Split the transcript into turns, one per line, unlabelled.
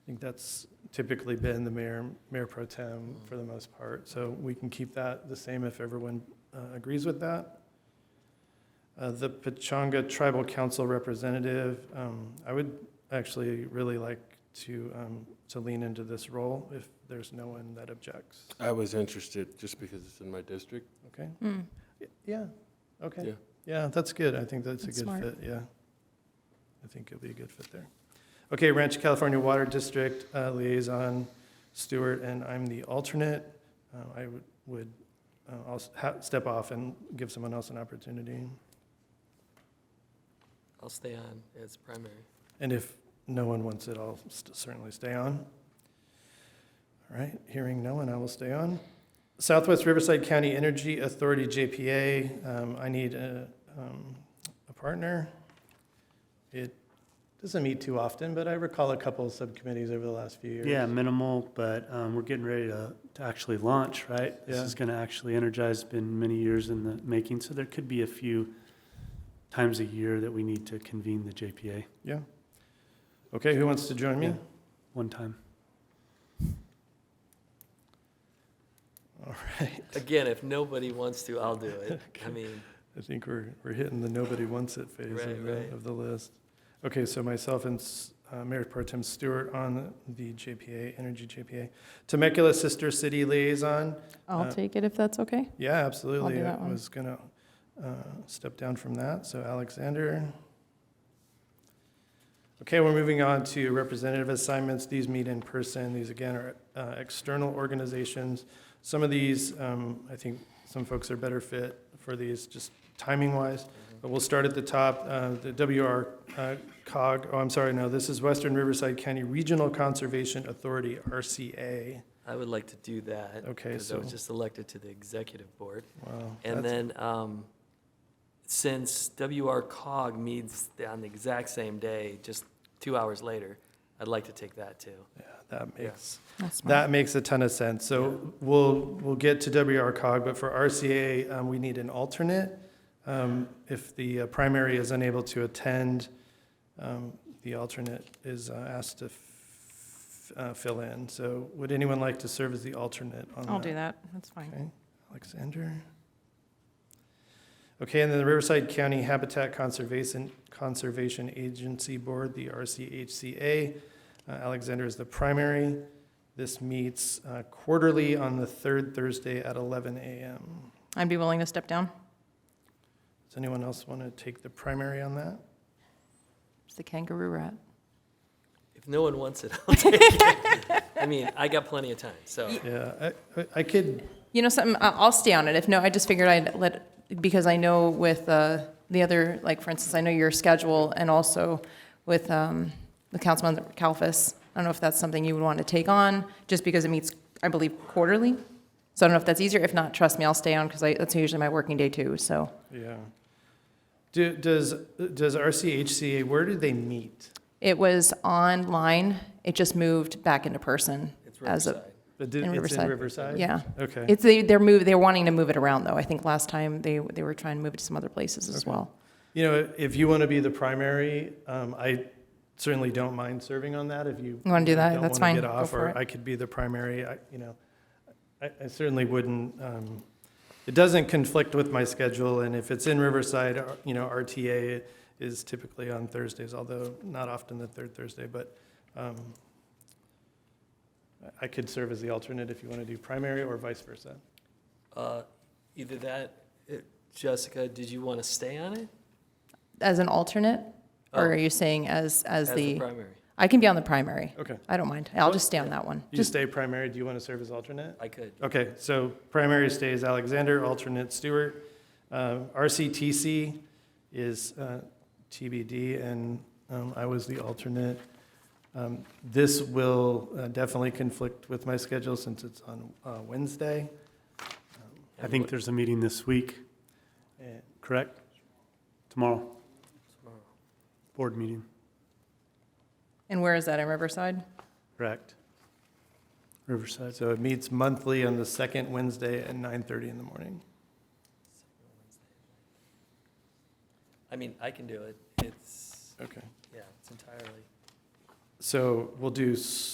think that's typically been the mayor, mayor pro tem for the most part. So we can keep that the same if everyone uh, agrees with that. Uh, The Pachanga Tribal Council Representative, um, I would actually really like to, um, to lean into this role if there's no one that objects.
I was interested just because it's in my district.
Okay?
Hmm.
Y- Yeah, okay.
Yeah.
Yeah, that's good. I think that's a
That's
good
smart.
fit, yeah. I think it'll be a good fit there. Okay, Rancho California Water District uh, Liaison Stewart, and I'm the alternate. Uh, I would- would, uh, I'll ha- step off and give someone else an opportunity.
I'll stay on as primary.
And if no one wants it, I'll st- certainly stay on. All right, hearing no one, I will stay on. Southwest Riverside County Energy Authority, JPA, um, I need a, um, a partner. It doesn't meet too often, but I recall a couple of subcommittees over the last few years.
Yeah, minimal, but um, we're getting ready to, to actually launch, right? This
Yeah.
is going to actually energize, been many years in the making, so there could be a few times a year that we need to convene the JPA,
Yeah. Okay, who wants to join me?
Yeah. one time.
All right.
Again, if nobody wants to, I'll do it. I mean,
I think we're, we're hitting the nobody wants it phase of
Right,
the,
right.
of the list. Okay, so myself and S- uh, Mayor Pro Tem Stewart on the JPA, Energy JPA. Temecula Sister City Liaison,
I'll
Uh,
take it if that's okay.
yeah, absolutely.
that
I
one.
was gonna uh, step down from that, so Alexander. Okay, we're moving on to representative assignments. These meet in person. These again are uh, external organizations. Some of these, um, I think some folks are better fit for these, just timing-wise. But we'll start at the top, uh, the WR uh, COG, oh, I'm sorry, no, this is Western Riverside County Regional Conservation Authority, RCA.
I would like to do that.
Okay,
Because I was
so-
just elected to the executive board.
Wow.
And
that's-
then, um, since WR cog meets on the exact same day, just two hours later, I'd like to take that too.
That makes
That's smart.
That makes a ton of sense. So we'll, we'll get to WRCOG, but for RCA, um, we need an alternate. Um, if the uh, primary is unable to attend, um, the alternate is uh, asked to f- uh, fill in. So would anyone like to serve as the alternate on that?
I'll do that. That's fine.
Okay, Alexander. Okay, and then the Riverside County Habitat Conservation, Conservation Agency Board, the RCHCA. Uh, Alexander is the primary. This meets uh, quarterly on the third Thursday at eleven a.m.
I'd be willing to step down.
Does anyone else want to take the primary on that?
It's the kangaroo rat.
If no one wants it, I'll take it. I mean, I got plenty of time, so.
Yeah, I- I, I could,
You know something? I- I'll stay on it. If no, I just figured I'd let, because I know with uh, the other, like, for instance, I know your schedule and also with um, the Councilman Kalfas. I don't know if that's something you would want to take on, just because it meets, I believe, quarterly. So I don't know if that's easier. If not, trust me, I'll stay on because that's usually my working day too, so.
yeah. Do, does, does RCHCA, where do they meet?
It was online. It just moved back into person.
It's
as a-
Riverside.
But do-
In
It's in
Riverside.
Riverside?
Yeah.
Okay.
It's, they, they're move, they're wanting to move it around though. I think last time they, they were trying to move it to some other places as
Okay.
well.
You know, if you want to be the primary, um, I certainly don't mind serving on that if you.
You wanna do that?
don't
That's
wanna
fine.
get
Go
off,
for
or
it.
I could be the primary, I, you know, I, I certainly wouldn't, um, it doesn't conflict with my schedule, and if it's in Riverside, uh, you know, RTA is typically on Thursdays, although not often the third Thursday, but, um, I- I could serve as the alternate if you want to do primary or vice versa.
Uh, Either that, it- Jessica, did you want to stay on it?
As an alternate?
Oh.
Or are you saying as, as
As the
the,
primary?
I can be on the primary.
Okay.
I don't mind. I'll just stay on that one.
You
Just,
stay primary, do you want to serve as alternate?
I could.
Okay, so primary stays Alexander, alternate Stewart. Um, RCTC is uh, TBD, and um, I was the alternate. Um, This will uh, definitely conflict with my schedule since it's on uh, Wednesday.
I think there's a meeting this week,
And-
correct? Tomorrow,
Tomorrow.
board meeting,
and where is that, in Riverside?
correct? Riverside,
So it meets monthly on the second Wednesday at 9:30 in the morning.
I mean, I can do it. It's,
Okay.
yeah, it's entirely.
So we'll do